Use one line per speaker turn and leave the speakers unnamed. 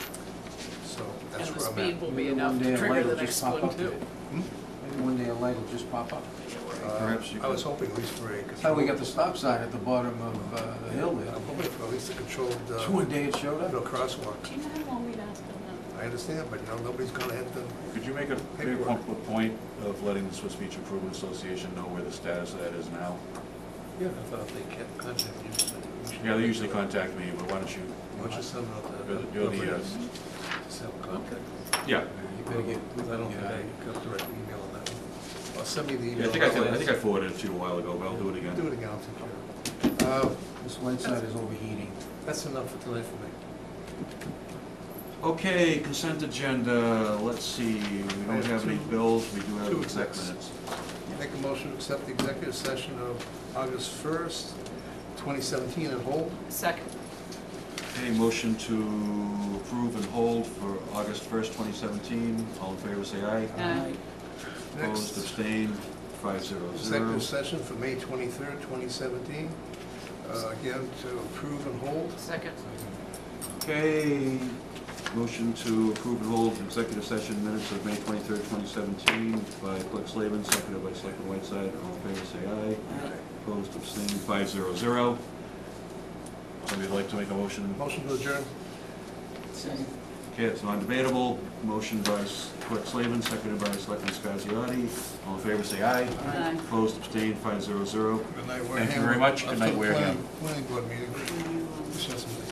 from it.
speed will be
Maybe
enough
one day
to
a
trigger
light
the
will
next
just pop
one
up
too.
today. Maybe one day a light will just pop up.
Hmm? Uh,
Perhaps you
I was
could-
hoping at least for a controlled.
That's how we got the stop sign at the bottom of uh, the hill
I'm
there.
hoping for at least a controlled,
So one
uh,
day it showed
no
up.
crosswalk.
Do you mind while we ask them
I understand, but no, nobody's gonna have to,
Could you make a, maybe
Paperwork.
pump a point of letting the Swiss Beach Improvement Association know where the status of that is now?
yeah, I thought they kept contact usually. We should-
Yeah, they usually contact me, but why don't you?
Why don't you send out the.
You're the- you're the, uh,
Just have contact.
Yeah,
You better get, I don't think I got the right email on that one. Or send me the
Yeah,
email.
I think I, did- I think I forwarded it to you a while ago, but I'll do
Do
it again.
it again, I'll take care of it. Uh,
This light side is overheating.
That's enough for tonight for me.
Okay, consent agenda, let's see, we don't have any bills, we do
Two
have exec
execs.
minutes.
Make a motion to accept the executive session of August 1st, 2017, and hold.
now? Second.
Okay, motion to approve and hold for August first, twenty seventeen, all in favor, say aye.
Aye.
Opposed,
Next,
abstained, five zero zero.
executive session for May 23rd, 2017. Uh, Again, to approve and hold.
Second.
Okay, motion to approve and hold executive session minutes of May twenty-third, twenty seventeen by Clerk Slavin, seconded by Selectman Whiteside, all in favor, say aye. Opposed, abstained, five zero zero. Somebody would like to make a motion?
Motion to adjourn.
Okay, it's non-debatable. Motion by S- Clerk Slavin, seconded by Selectman Scasiotti. All in favor, say aye.
Aye.
Opposed, abstained, five zero zero.
Good night,
Thank you very much. Good night, Wareham.
Planning board meeting. Just have some